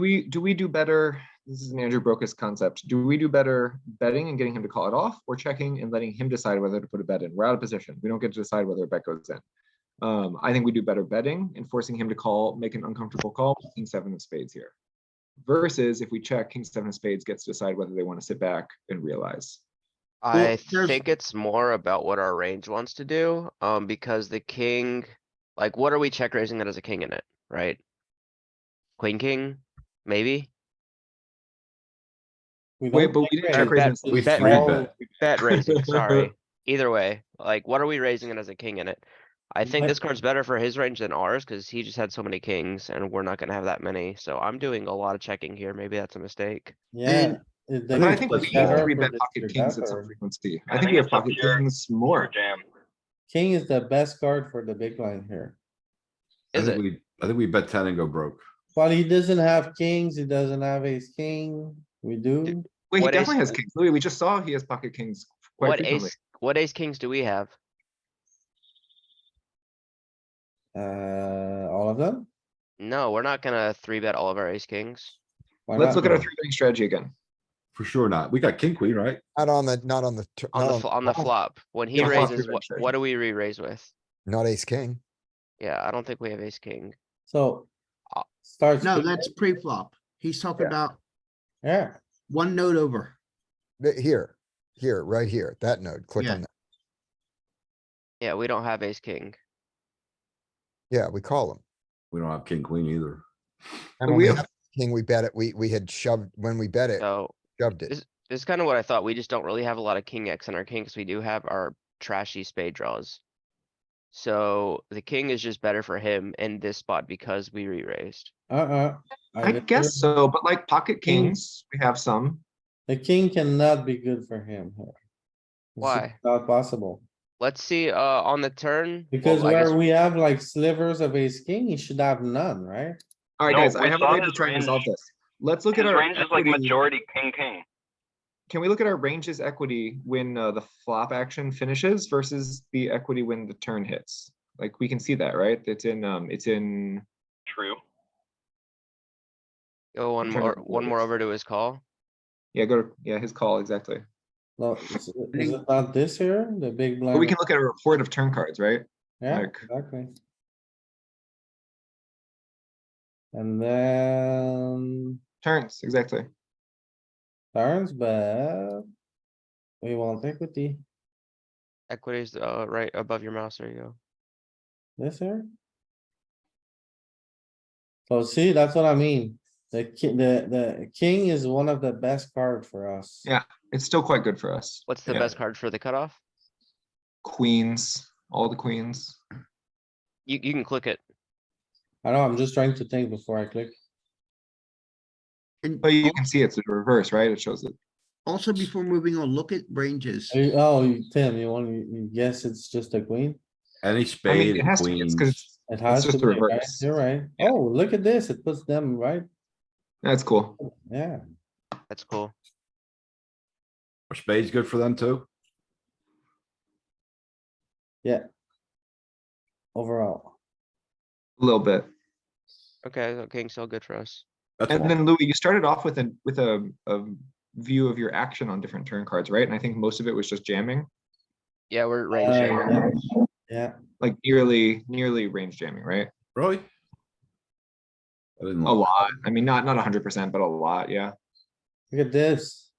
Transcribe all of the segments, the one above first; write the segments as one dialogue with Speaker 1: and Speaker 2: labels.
Speaker 1: We, do we do better? This is an Andrew Brokus concept. Do we do better betting and getting him to call it off or checking and letting him decide whether to put a bet in? We're out of position. We don't get to decide whether a bet goes in. Um, I think we do better betting and forcing him to call, make an uncomfortable call, with king seven of spades here. Versus if we check, king seven of spades gets to decide whether they want to sit back and realize.
Speaker 2: I
Speaker 3: there's-
Speaker 2: think it's more about what our range wants to do, um, because the king, like, what are we check raising that has a king in it, right? Queen, king, maybe?
Speaker 3: We
Speaker 1: Wait,
Speaker 3: don't
Speaker 1: but we didn't check
Speaker 3: raise.
Speaker 1: raise.
Speaker 2: bet-
Speaker 1: and see.
Speaker 4: we bet
Speaker 3: We
Speaker 4: raise.
Speaker 3: all-
Speaker 2: Bet raising, sorry. Either way, like, what are we raising it as a king in it? I think
Speaker 3: But-
Speaker 2: this card's better for his range than ours, cuz he just had so many kings and we're not gonna have that many, so I'm doing a lot of checking here, maybe that's a mistake.
Speaker 3: Yeah. it- the
Speaker 1: And I
Speaker 3: range
Speaker 1: think
Speaker 3: was
Speaker 1: we
Speaker 3: better
Speaker 1: three
Speaker 3: for
Speaker 1: bet
Speaker 3: the
Speaker 1: pocket kings at some
Speaker 3: suited
Speaker 1: frequency. I
Speaker 5: I
Speaker 1: think
Speaker 5: think
Speaker 1: we have
Speaker 5: it's a
Speaker 1: pocket
Speaker 5: pure-
Speaker 1: kings more.
Speaker 5: jam.
Speaker 3: King is the best card for the big line here.
Speaker 4: I
Speaker 2: Is
Speaker 4: think
Speaker 2: it?
Speaker 4: we, I think we bet ten and go broke.
Speaker 3: But he doesn't have kings, he doesn't have ace king, we do.
Speaker 1: Wait, he
Speaker 2: What
Speaker 1: definitely has
Speaker 2: ace-
Speaker 1: kings. Louis, we just saw he has pocket kings quite
Speaker 2: What
Speaker 1: frequently.
Speaker 2: ace, what ace kings do we have?
Speaker 3: Uh, all of them?
Speaker 2: No, we're not gonna three bet all of our ace kings.
Speaker 3: Why
Speaker 1: Let's
Speaker 3: not?
Speaker 1: look at our three betting strategy again.
Speaker 4: For sure not. We got king queen, right?
Speaker 6: Not on the, not on the, tur-
Speaker 2: On
Speaker 6: not
Speaker 2: the,
Speaker 6: on-
Speaker 2: fl- uh on the flop, when he
Speaker 1: Oh, Yeah, flop
Speaker 2: raises,
Speaker 1: three-bet
Speaker 2: what,
Speaker 1: strategy.
Speaker 2: what do we re-raise with?
Speaker 6: not ace king.
Speaker 2: Yeah, I don't think we have ace king.
Speaker 3: So.
Speaker 1: Uh,
Speaker 3: Starts.
Speaker 7: No,
Speaker 3: with-
Speaker 7: that's pre-flop. He's talking
Speaker 1: Yeah.
Speaker 7: about
Speaker 3: Yeah,
Speaker 7: one note over.
Speaker 6: Th- Here, here, right here, that node, click
Speaker 7: Yeah.
Speaker 6: on that.
Speaker 2: Yeah, we don't have ace king.
Speaker 6: Yeah, we call him.
Speaker 4: We don't have king queen either.
Speaker 1: But
Speaker 6: And when
Speaker 1: we
Speaker 6: we
Speaker 1: have-
Speaker 6: had king, we bet it, we, we had shoved, when we bet it,
Speaker 2: So
Speaker 6: shoved it.
Speaker 2: this is kind of what I thought. We just don't really have a lot of king X in our king because we do have our trashy spade draws. So the king is just better for him in this spot because we re-raised.
Speaker 3: uh-uh.
Speaker 1: I
Speaker 3: would
Speaker 1: guess
Speaker 3: never-
Speaker 1: so, but like pocket
Speaker 3: King.
Speaker 1: kings, we have some.
Speaker 3: The king cannot be good for him here. It's just
Speaker 2: Why?
Speaker 3: Not possible,
Speaker 2: Let's see, uh, on the turn. well,
Speaker 3: because
Speaker 2: I guess-
Speaker 3: where we have like slivers of ace king, he should have none, right?
Speaker 1: All right,
Speaker 5: No,
Speaker 1: guys, I
Speaker 5: we
Speaker 1: have a
Speaker 5: saw
Speaker 1: way to
Speaker 5: his
Speaker 1: try and resolve
Speaker 5: range.
Speaker 1: this. Let's look
Speaker 5: His
Speaker 1: at our
Speaker 5: range is like
Speaker 1: equity.
Speaker 5: majority king, king.
Speaker 1: Can we look at our ranges equity when uh, the flop action finishes versus the equity when the turn hits? Like, we can see that, right? It's in, um, it's in,
Speaker 5: True.
Speaker 2: Go one
Speaker 1: trying to
Speaker 2: more,
Speaker 1: think what
Speaker 2: one
Speaker 1: it
Speaker 2: more
Speaker 1: is.
Speaker 2: over to his call.
Speaker 1: yeah, go, to yeah, his call, exactly.
Speaker 3: No, is is it not this here, the big blind?
Speaker 1: But we can look at a report of turn cards, right?
Speaker 3: Yeah,
Speaker 1: like-
Speaker 3: exactly. And then
Speaker 1: Turns, exactly.
Speaker 3: turns, but we want equity
Speaker 2: Equities, uh, right above your mouse. There you go.
Speaker 3: this here. So see, that's what I mean. The ki- the, the king is one of the best card for us.
Speaker 1: Yeah. It's still quite good for us.
Speaker 2: What's the
Speaker 1: Yeah.
Speaker 2: best card for the cutoff?
Speaker 1: Queens, all the queens.
Speaker 2: You, you can click it.
Speaker 3: I know, I'm just trying to think before I click.
Speaker 7: And
Speaker 1: But
Speaker 2: Oh.
Speaker 1: you can see it's the reverse, right? It shows it.
Speaker 7: also before moving on, look at ranges.
Speaker 3: Are you- Oh, you- Tim, you want, you you guess it's just a queen?
Speaker 4: Any
Speaker 1: I mean,
Speaker 4: spade
Speaker 1: it
Speaker 4: and
Speaker 1: has to, be- it's
Speaker 4: queens.
Speaker 1: because it's,
Speaker 3: It has to
Speaker 1: just
Speaker 3: be,
Speaker 1: the
Speaker 3: right?
Speaker 1: reverse.
Speaker 3: You're right.
Speaker 1: Yeah.
Speaker 3: Oh, look at this. It puts them right.
Speaker 1: that's cool.
Speaker 3: Yeah.
Speaker 2: That's cool.
Speaker 4: Are spades good for them too?
Speaker 3: overall.
Speaker 1: A little bit.
Speaker 2: Okay, so king's still good for us.
Speaker 4: That's
Speaker 1: And
Speaker 4: why.
Speaker 1: then Louis, you started off with a, with a, a view of your action on different turn cards, right? And I think most of it was just jamming,
Speaker 2: Yeah, we're
Speaker 3: Uh,
Speaker 2: range jamming.
Speaker 3: Yeah, yeah,
Speaker 1: like nearly, nearly range jamming, right?
Speaker 4: Really? I didn't.
Speaker 1: A
Speaker 4: look.
Speaker 1: lot. I mean, not, not hundred percent, but a lot, yeah.
Speaker 3: look at this,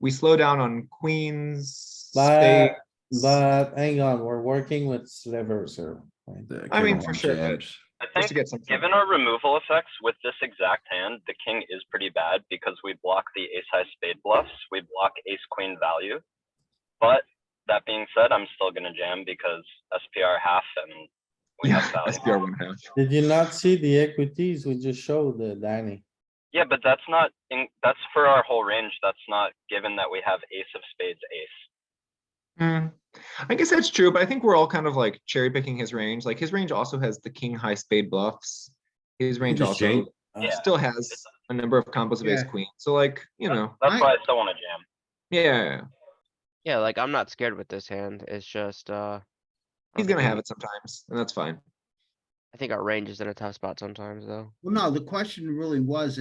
Speaker 1: We slow down on queens,
Speaker 3: but,
Speaker 1: spades,
Speaker 3: but hang on, we're working with slivers here. right?
Speaker 4: The
Speaker 1: I
Speaker 4: king
Speaker 1: mean,
Speaker 4: of
Speaker 1: for
Speaker 4: hearts
Speaker 1: sure.
Speaker 4: jabs.
Speaker 5: I
Speaker 1: just to
Speaker 5: think,
Speaker 1: get some.
Speaker 5: given our removal effects with this exact hand, the king is pretty bad because we block the ace high spade bluffs, we block ace queen value. But that being said, I'm still gonna jam because SPR half and we
Speaker 1: Yeah,
Speaker 5: have
Speaker 1: SPR
Speaker 5: value.
Speaker 1: one half.
Speaker 3: Did you not see the equities we just showed, uh, Danny?
Speaker 5: Yeah, but that's not, in that's for our whole range. That's not given that we have ace of spades, ace.
Speaker 1: Hmm. I guess that's true, but I think we're all kind of like cherry picking his range. Like his range also has the king high spade bluffs. His range
Speaker 4: just
Speaker 1: also
Speaker 4: jam-
Speaker 3: Uh,
Speaker 5: Yeah.
Speaker 1: still has a number of combos of ace queen. So like, you know,
Speaker 5: That's
Speaker 1: I-
Speaker 5: why I still wanna jam.
Speaker 1: yeah, yeah, yeah.
Speaker 2: Yeah, like I'm not scared with this hand. It's just, uh. I
Speaker 1: he's
Speaker 2: don't
Speaker 1: gonna
Speaker 2: think
Speaker 1: have it sometimes, and that's fine.
Speaker 2: I think our range is in a tough spot sometimes, though.
Speaker 7: Well, no, the question really was